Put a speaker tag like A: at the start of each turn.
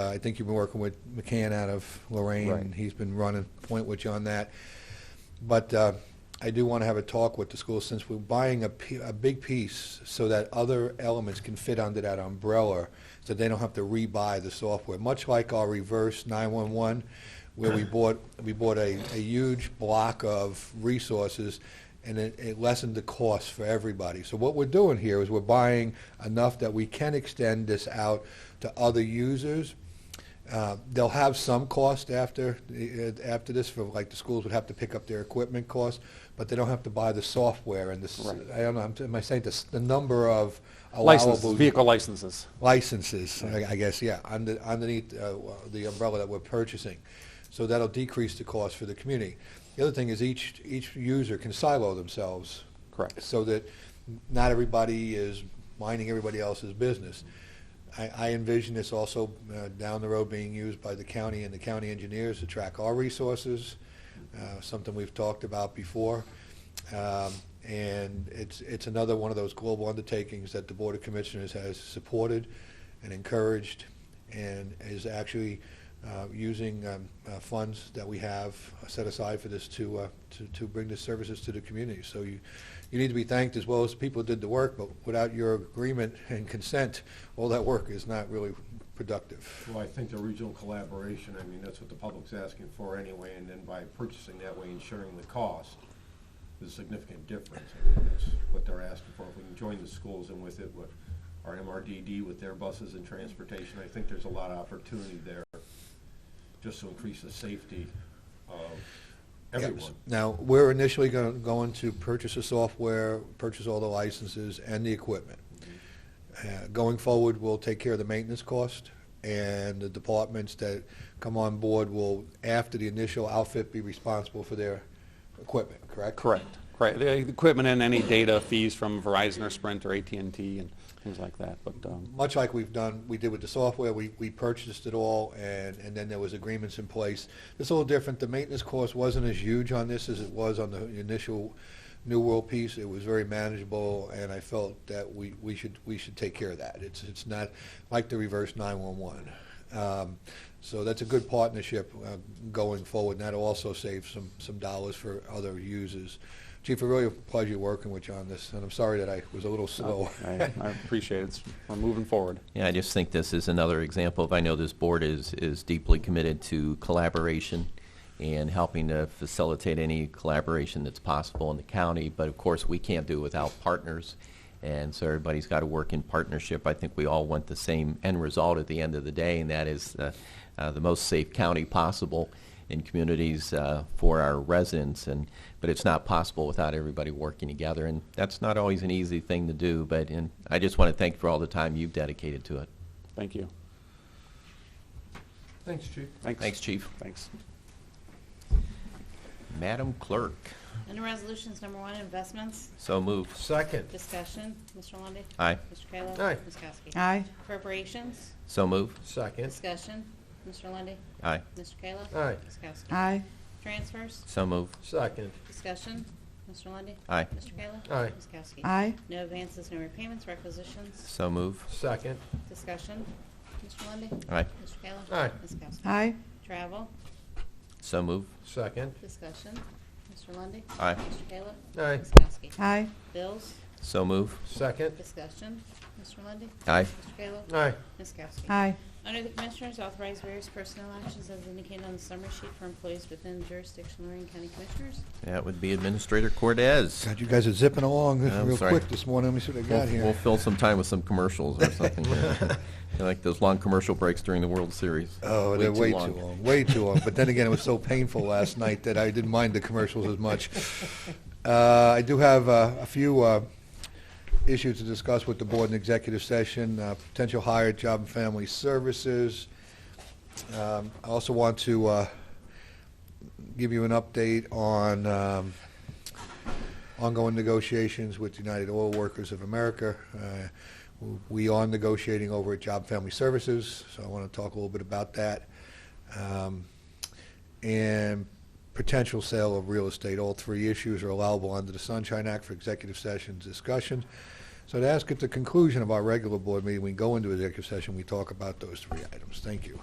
A: Uh, I think you've been working with McCann out of Lorraine.
B: Right.
A: He's been running point with you on that. But uh, I do want to have a talk with the school since we're buying a, p- a big piece so that other elements can fit under that umbrella so they don't have to rebuy the software. Much like our reverse 911, where we bought we bought a, a huge block of resources and it, it lessened the cost for everybody. So what we're doing here is we're buying enough that we can extend this out to other users. Uh, They'll have some cost after, eh, after this, for, like, the schools would have to pick up their equipment costs, but they don't have to buy the software and this,
B: Right.
A: I don't know, I'm- am I saying this, the number of
B: Licenses,
A: allowable
B: vehicle licenses.
A: licenses, I I guess, yeah, under- underneath uh, the umbrella that we're purchasing. So that'll decrease the cost for the community. The other thing is each, each user can silo themselves.
B: Correct.
A: So that not everybody is minding everybody else's business. I, I envision this also uh, down the road being used by the county and the county engineers to track our resources, uh, something we've talked about before. Um, And it's, it's another one of those global undertakings that the Board of Commissioners has supported and encouraged and is actually uh, using um, uh, funds that we have set aside for this to, uh, to, to bring the services to the community. So you, you need to be thanked as well as the people who did the work, but without your agreement and consent, all that work is not really productive.
C: Well, I think the regional collaboration, I mean, that's what the public's asking for anyway, and then by purchasing that way and sharing the cost, there's a significant difference. I mean, that's what they're asking for. If we can join the schools and with it, with our MRDD, with their buses and transportation, I think there's a lot of opportunity there just to increase the safety of everyone.
A: Now, we're initially gonna- going to purchase the software, purchase all the licenses and the equipment. Uh, Going forward, we'll take care of the maintenance cost, and the departments that come on board will, after the initial outfit, be responsible for their equipment, correct?
B: Correct, correct. The equipment and any data fees from Verizon or Sprint or at and t and things like that, but, um,
A: much like we've done, we did with the software, we, we purchased it all, and, and then there was agreements in place. It's a little different, the maintenance cost wasn't as huge on this as it was on the initial New World piece, it was very manageable, and I felt that we, we should, we should take care of that. It's, it's not like the reverse nine-one-one. Um, so that's a good partnership, uh, going forward, and that'll also save some, some dollars for other users. Chief, it really a pleasure working with you on this, and I'm sorry that I was a little slow.
B: I I appreciate it. It's- We're moving forward.
D: Yeah, I just think this is another example of, I know this board is, is deeply committed to collaboration and helping to facilitate any collaboration that's possible in the county, but of course, we can't do without partners, and so everybody's got to work in partnership. I think we all want the same end result at the end of the day, and that is uh, uh, the most safe county possible in communities uh, for our residents, and, but it's not possible without everybody working together, and that's not always an easy thing to do, but, and I just want to thank you for all the time you've dedicated to it.
B: Thank you.
C: Thanks, Chief.
B: Thanks.
D: Thanks, Chief.
B: Thanks.
D: Madam Clerk,
E: Under Resolutions Number One, Investments,
D: so move.
C: Second.
E: Discussion, Mr. Lundey.
D: Aye.
E: Mr. Kayla.
C: Aye.
E: Ms. Kowski.
F: Aye.
E: Appropriations,
D: So move.
C: Second.
E: Discussion, Mr. Lundey.
D: Aye.
E: Mr. Kayla.
C: Aye.
E: Ms. Kowski.
F: Aye.
E: Transfers,
D: So move.
C: Second.
E: Discussion, Mr. Lundey.
D: Aye.
E: Mr. Kayla.
C: Aye.
E: Ms. Kowski.
F: Aye.
E: No advances, no repayments, requisitions,
D: So move.
C: Second.
E: Discussion, Mr. Lundey.
D: Aye.
E: Mr. Kayla.
C: Aye.
E: Ms. Kowski.
F: Aye.
E: Travel,
D: So move.
C: Second.
E: Discussion, Mr. Lundey.
D: Aye.
E: Mr. Kayla.
C: Aye.
E: Ms. Kowski.
F: Aye.
E: Bills,
D: So move.
C: Second.
E: Discussion, Mr. Lundey.
D: Aye.
E: Mr. Kayla.
C: Aye.
E: Ms. Kowski.
F: Aye.
E: Under the Commissioners, authorize various personnel actions as indicated on the summary sheet for employees within jurisdiction of Lorraine County Commissioners.
D: That would be Administrator Cortez.
A: God, you guys are zipping along
D: Yeah, I'm
A: real
D: sorry.
A: quick this morning. Let me see what I got
D: We'll- We'll
A: here.
D: fill some time with some commercials or something. I Like those long commercial breaks during the World Series.
A: Oh, they're way too long, way too long. But then again, it was so painful last night that I didn't mind the commercials as much. Uh, I do have uh, a few uh, issues to discuss with the board in executive session, uh, potential hire, job and family services. Um, I also want to uh, give you an update on um, ongoing negotiations with United Oil Workers of America. Uh, We are negotiating over at Job and Family Services, so I want to talk a little bit about that. Um, And potential sale of real estate. All three issues are allowable under the Sunshine Act for executive sessions discussion. So to ask at the conclusion of our regular board meeting, we go into executive session, we talk about those three items. Thank you.